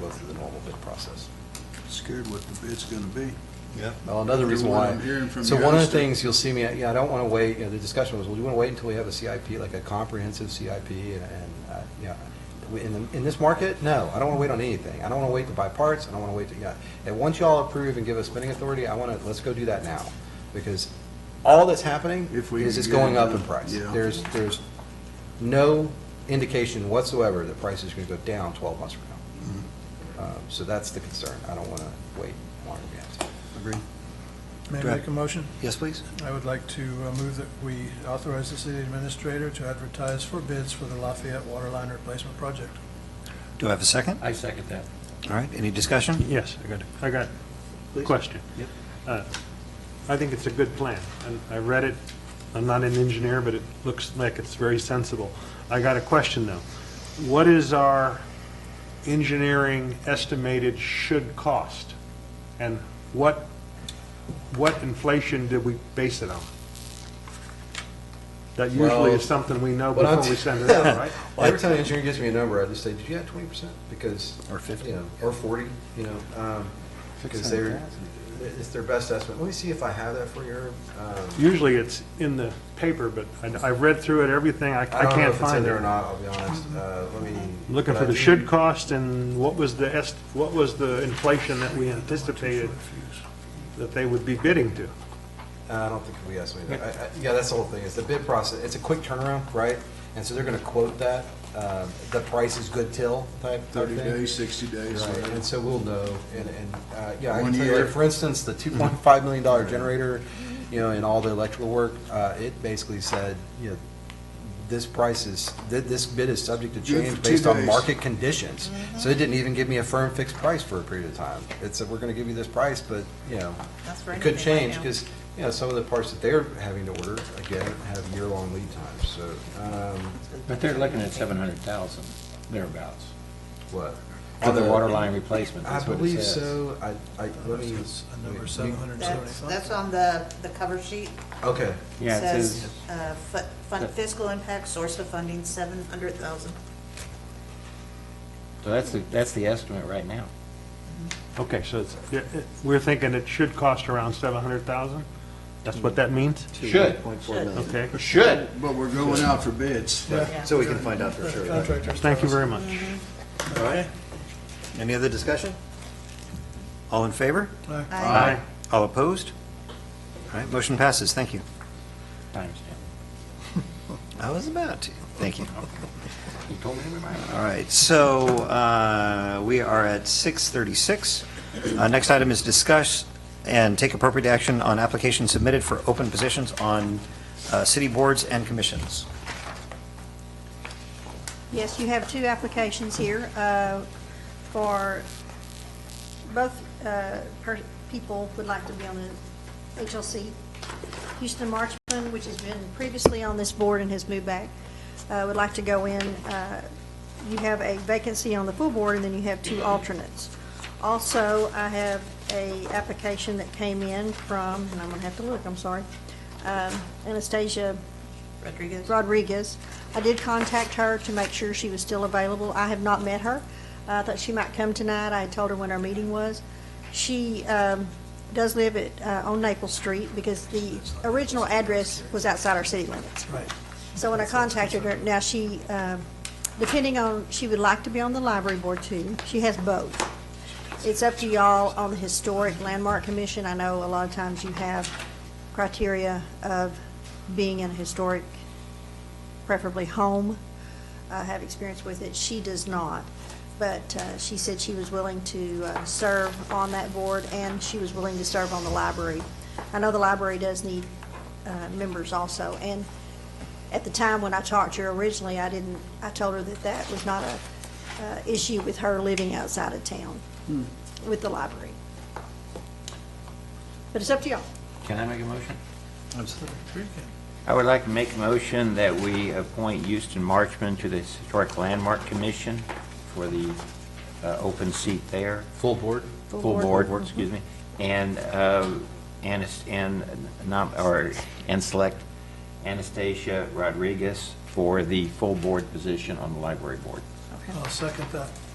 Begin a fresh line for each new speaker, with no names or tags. go through the normal bid process.
Scared what the bid's gonna be.
Yeah. Well, another reason
From what
why.
I'm hearing from
So
your
one of the
estimate.
things you'll see me, yeah, I don't want to wait, you know, the discussion was, well, do you want to wait until we have a CIP, like a comprehensive CIP? And, and, uh, yeah, We- in, the- in this market, no, I don't want to wait on anything. I don't want to wait to buy parts, I don't want to wait to, yeah. And once y'all approve and give us spending authority, I want to, let's go do that now. Because all that's happening
If we
is
can
it's
get it
going up
done,
in price.
yeah.
There's, there's no indication whatsoever that prices are going to go down 12 months from
Mm-hmm.
now. Um, So that's the concern. I don't want to wait longer than we have to.
Agree?
May I
Go ahead.
make a motion?
Yes, please.
I would like to uh, move that we authorize the city administrator to advertise for bids for the Lafayette Water Line Replacement Project.
Do I have a second?
I second that.
All right, any discussion?
Yes, I got, I got a question.
Yep.
Uh, I think it's a good plan, and I read it, I'm not an engineer, but it looks like it's very sensible. I got a question, though. What is our engineering estimated should cost? And what, what inflation did we base it on? That usually
Well,
is something we know
what I'm-
before we send it out, right?
Well, every time an engineer gives me a number, I just say, did you have twenty percent? Because.
Or 50.
You know, or forty, you know, um, because they're,
600,000.
it's their best estimate. Let me see if I have that for you. Herb. Um,
Usually it's in the paper, but I- I've read through it, everything, I
I
I
don't know
can't
if it's in
find it. Mm-hmm.
there or not, I'll be honest. Uh, let me.
Looking
but
for
I
the
do-
should cost and what was the, est- what was the inflation that we anticipated that they would be bidding to?
Uh, I don't think we estimated that. I- I- Yeah, that's the whole thing, It's the bid process, it's a quick turnaround, right? And so they're gonna quote that, um, the price is good till type. type
Thirty
thing.
days, sixty days,
Right,
whatever.
and so we'll know, and, and, uh, yeah, I
One
can tell you,
year.
like, for instance, the two point five million dollar generator, you know, and all the electrical work, uh, it basically said, you know, this price is, th- this bid is subject to
Good
change
for two
based on
days.
market conditions. So it
Mm-hmm.
didn't even give me a firm fixed price for a period of time. It said, we're gonna give you this price, but, you know,
That's for
it could
anything right
change,
now.
because, you know, some of the parts that they're having to order, again, have year-long lead times, so, um,
But they're looking at seven hundred thousand thereabouts
what?
for the water line replacement,
I
that's what it
believe
says.
so, I, I, let me.
It's a
wait,
number
you-
seven hundred and
That's,
seventy-five.
that's on the, the cover sheet.
Okay,
Yeah, it says,
uh, fu- fun- fiscal impact, source of funding, seven hundred thousand.
so that's, the that's the estimate right now.
Okay, so it's, yeah, it- we're thinking it should cost around seven hundred thousand? That's what that means?
Should,
Okay,
should.
But we're going out for bids.
so we can find out for sure.
Uh, Contractors.
thank you very much.
All right. Any other discussion? All in favor?
Aye.
All opposed? All right, motion passes, thank you.
Times
I was about to, thank you.
ten. You told me to remind you.
All right, so uh, we are at 6:36. Uh, Next item is discuss and take appropriate action on applications submitted for open positions on uh, city boards and commissions.
Yes, you have two applications here uh, for, both uh, per- people would like to be on the HLC. Houston Marchman, which has been previously on this board and has moved back, uh, would like to go in. Uh, You have a vacancy on the full board, and then you have two alternates. Also, I have a application that came in from, and I'm going to have to look, I'm sorry, um, Anastasia
Rodriguez?
Rodriguez. I did contact her to make sure she was still available. I have not met her. I thought she might come tonight. I had told her when our meeting was. She um, does live at, uh, on Naples Street because the original address was outside our city limits.
Right.
So when I contacted her, now she, um, depending on, she would like to be on the library board too. She has both. It's up to y'all on the Historic Landmark Commission. I know a lot of times you have criteria of being in a historic, preferably home, uh, have experience with it. She does not. But uh, she said she was willing to uh, serve on that board, and she was willing to serve on the library. I know the library does need uh, members also, and at the time when I talked to her originally, I didn't, I told her that that was not a uh, issue with her living outside of town with the library. But it's up to y'all.
Can I make a motion?
Absolutely.
I would like to make a motion that we appoint Houston Marchman to the Historic Landmark Commission for the uh, open seat there.
Full board?
Full
Full
board.
board, excuse me. And, uh, Anas- and, nom- or, and select Anastasia Rodriguez for the full board position on the library board.
Okay.
Uh, I'll second that.